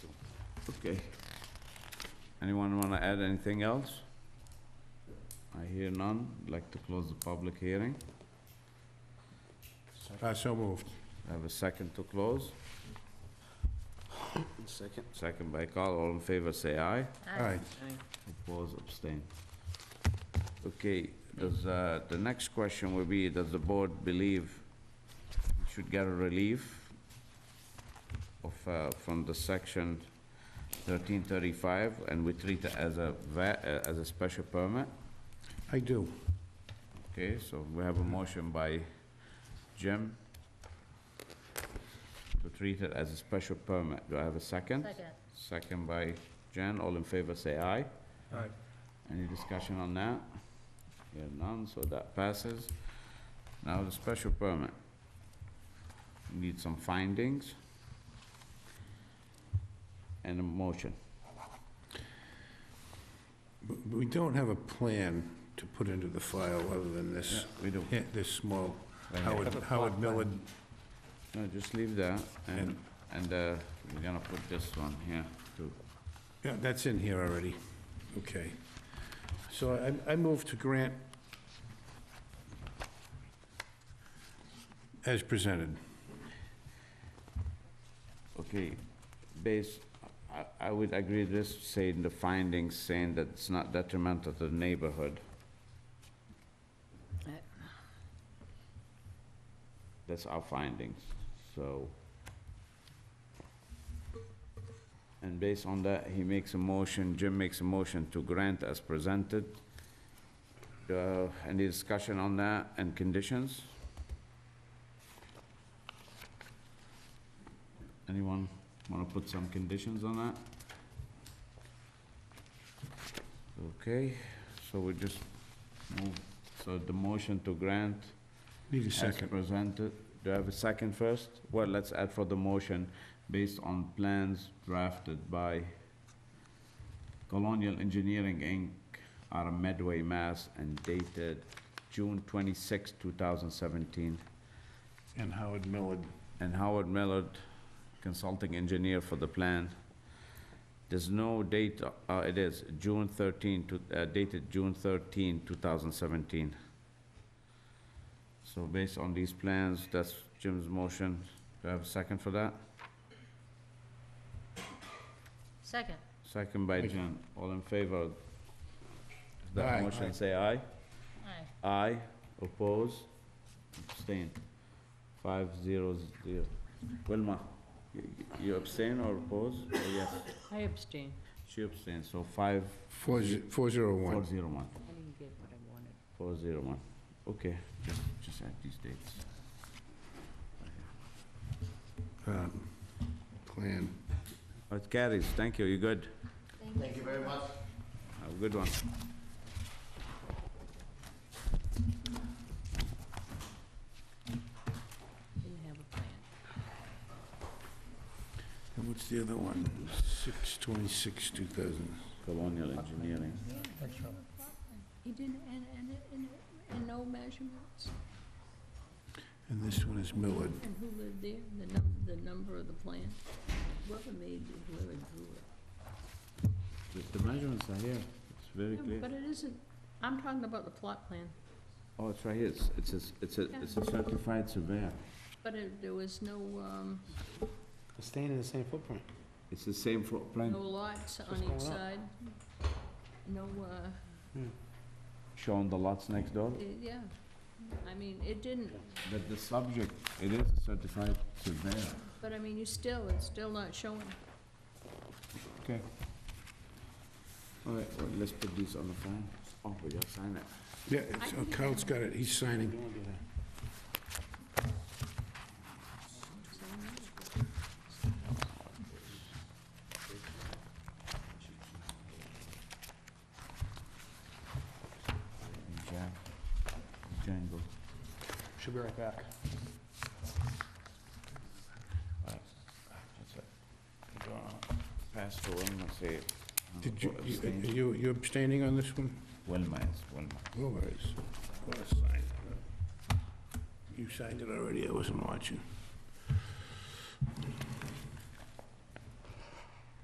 Okay. Anyone want to add anything else? I hear none. Like to close the public hearing. Uh, so moved. I Have a second to close. Second. Second by Carl. All in favor, say aye. All right, Oppose, abstain. Okay, does, uh, the next question will be, does the board believe we should get a relief of, uh, from the section 1335, and we treat it as a va, uh, as a special permit? I do. Okay, so we have a motion by Jim to treat it as a special permit. Do I have a second? Second. Second by Jen. All in favor, say aye. All right. Any discussion on that? Here none, so that passes. Now the special permit. Need some findings. And a motion. We don't have a plan to put into the file other than this, We do. yeah, this small Right here. Howard, Howard Millard. No, just leave that, and, And- and, uh, we're gonna put this one here, too. Yeah, that's in here already. Okay. So I, I move to grant as presented. Okay, based, I, I would agree this, saying the findings, saying that it's not detrimental to the neighborhood. Uh. That's our findings, so. And based on that, he makes a motion, Jim makes a motion to grant as presented. Uh, any discussion on that and conditions? Anyone want to put some conditions on that? Okay, so we just move, so the motion to grant Need a as second. presented. Do I have a second first? Well, let's add for the motion, based on plans drafted by Colonial Engineering, Inc., out of Medway, Mass., and dated June 26, 2017. And Howard Millard. and Howard Millard, consulting engineer for the plan. There's no date, uh, it is June 13, to- uh, dated June 13, 2017. So based on these plans, that's Jim's motion. Do I have a second for that? Second. Second by Thank you. Jim. All in favor? of That Aye. motion, say aye. Aye. Aye, oppose, abstain. Five zero zero. Wilma, you- you abstain or oppose? Or yes? I abstain. She abstains, so five, Four, ze- four zero four one. zero one, I didn't get what I wanted. four zero one. Okay, just, just add these dates. um, Plan. Oh, It carries, thank you, you're good. Thank you. Have a good one. Didn't have a plan. And what's the other one? Six twenty-six, two thousand. Colonial Engineering. He didn't, and, and, and, and no measurements, And this one is Millard. and who lived there, the num, the number of the plan, whoever made it, whoever drew it. The- The measurements are here, it's very No, clear. But it isn't, I'm talking about the plot plan, Oh, it's right here, it's, it's, a- it's a, it's a certified surveyor. but it, there was no, um, Staying in the same footprint. It's the same footprint no lots on What's going on? each side. No, uh, shown the lots next door, eh, yeah, I mean, it didn't, but the subject, it is a certified surveyor. but I mean, you still, it's still not showing. Okay. All right, well, let's put these on the phone. Oh, we gotta sign it. Yeah, it's- oh, Carl's got it, he's signing. Jan- Django. Should be right back. That's it. Go on. Pass to Wilma, say. um, it. Did you, you- Abstain. are you, you abstaining on this one? Oh, Wilma, it's Wilma. Always. You signed it already, I wasn't watching.